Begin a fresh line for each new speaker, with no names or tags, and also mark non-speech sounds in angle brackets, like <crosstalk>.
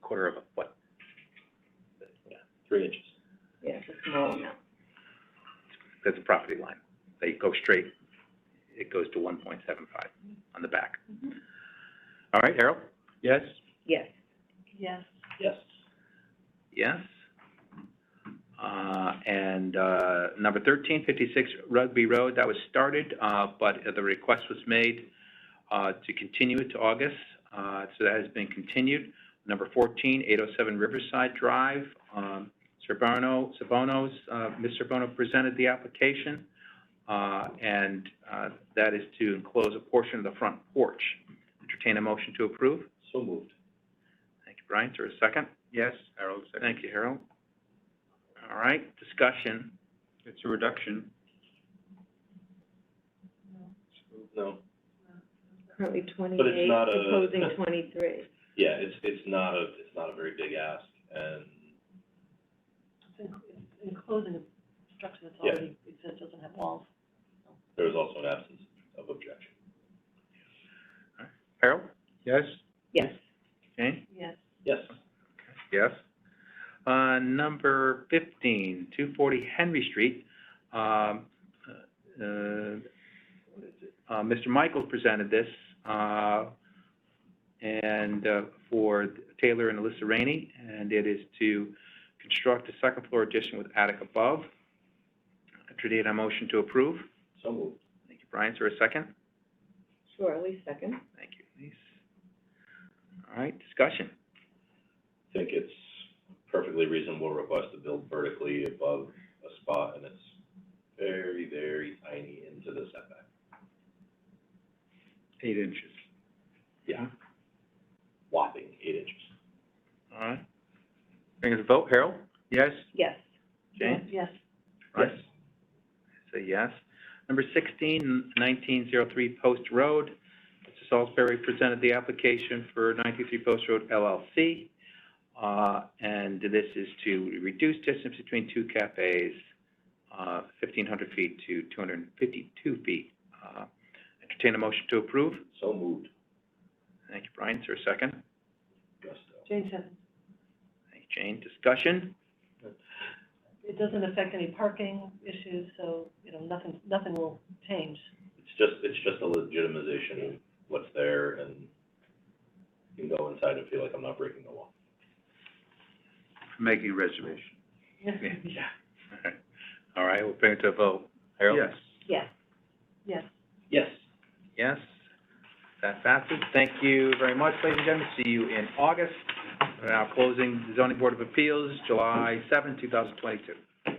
quarter of a foot.
yeah, three inches.
Yeah, it's a small amount.
That's a property line. They go straight, it goes to one point seven five on the back. All right, Harold?
Yes?
Yes.
Yes.
Yes. Uh, and, uh, number thirteen fifty-six Rugby Road, that was started, uh, but the request was made, uh, to continue it to August, uh, so that has been continued. Number fourteen, eight oh seven Riverside Drive, um, Serbono, Sabonos, uh, Ms. Serbono presented the application, uh, and, uh, that is to enclose a portion of the front porch. Entertain a motion to approve.
So moved.
Thank you, Brian. Is there a second?
Yes, Harold,
Thank you, Harold. All right, discussion.
It's a reduction. No,
Currently
But it's
twenty-eight,
not a-
proposing
<laughs>
twenty-three.
yeah, it's, it's not a, it's not a very big ask, and,
enclosing a structure that's
Yeah.
already exists, doesn't have walls.
there was also an absence of objection.
Harold?
Yes?
Yes.
Jane?
Yes.
Yes.
Yes. Uh, number fifteen, two forty Henry Street, um, uh, uh, Mr. Michael presented this, uh, and, uh, for Taylor and Alyssa Rainey, and it is to construct a second floor addition with attic above. Entertain a motion to approve.
So moved.
Thank you, Brian. Is there a second?
Sure, at least second.
Thank you, Elise. All right, discussion.
Think it's perfectly reasonable request to build vertically above a spot, and it's very, very tiny into the setback.
Eight inches.
Yeah. Whopping eight inches.
All right. Bring us a vote, Harold? Yes.
Yes.
Jane?
Yes.
Yes. Say yes. Number sixteen, nineteen zero three Post Road. Mr. Salisbury presented the application for ninety-three Post Road LLC. Uh, and this is to reduce distance between two cafes, uh, fifteen hundred feet to two hundred and fifty-two feet. Uh, entertain a motion to approve.
So moved,
Thank you, Brian. Is there a second?
gusto.
Jane said,
Thank you, Jane. Discussion?
it doesn't affect any parking issues, so, you know, nothing, nothing will change.
It's just, it's just a legitimization of what's there, and you can go inside and feel like I'm not breaking the law.
Making reservation.
Yeah. All right, we'll bring it to a vote. Harold?
Yes.
Yes.
Yes.
Yes.
Yes. That passes. Thank you very much, ladies and gentlemen. See you in August. We're now closing the zoning board of appeals, July seventh, two thousand twenty-two.